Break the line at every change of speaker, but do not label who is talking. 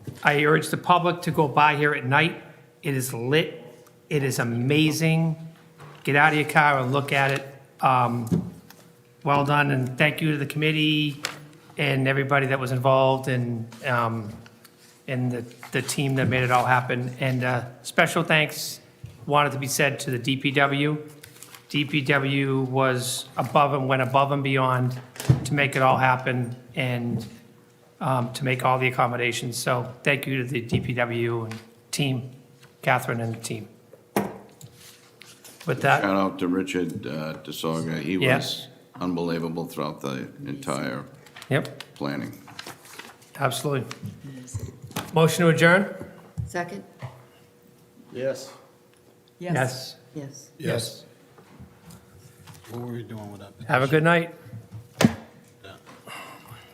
I urge the public to go by here at night. It is lit. It is amazing. Get out of your car and look at it. Um, Well done, and thank you to the committee and everybody that was involved and, um, and the, the team that made it all happen. And uh, special thanks wanted to be said to the DPW. DPW was above and went above and beyond to make it all happen and um, to make all the accommodations. So thank you to the DPW and team, Catherine and the team. With that.
Shout out to Richard uh, DeSoga. He
Yeah.
was unbelievable throughout the entire
Yep,
planning.
absolutely. Motion to adjourn?
Second?
Yes.
Yes.
Yes.
Yes.
What were we doing with that?
Have a good night.